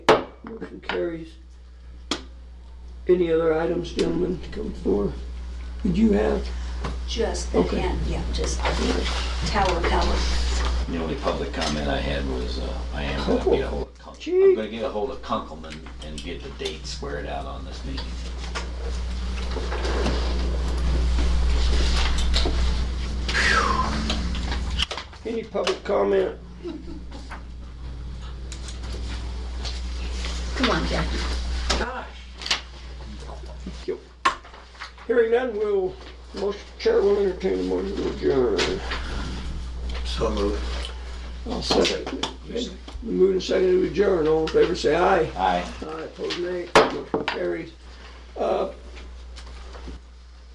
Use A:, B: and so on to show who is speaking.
A: Motion carries. Any other items, gentlemen, to come forward? Did you have?
B: Just the
A: Okay.
B: hand, yeah, just the tower cover.
C: The only public comment I had was, uh, I am gonna get ahold of Kunkel.
A: Gee.
C: I'm gonna get ahold of Kunkelman and get the date squared out on this meeting.
A: Any public comment?
B: Come on, Jackie.
A: Hearing none, will, most chair will entertain a motion to adjourn.
D: So moved.
A: I'll second. it. The move and second to adjourn, all in favor, say aye.
C: Aye.
A: Aye, opposed, nay. Motion carries. Uh,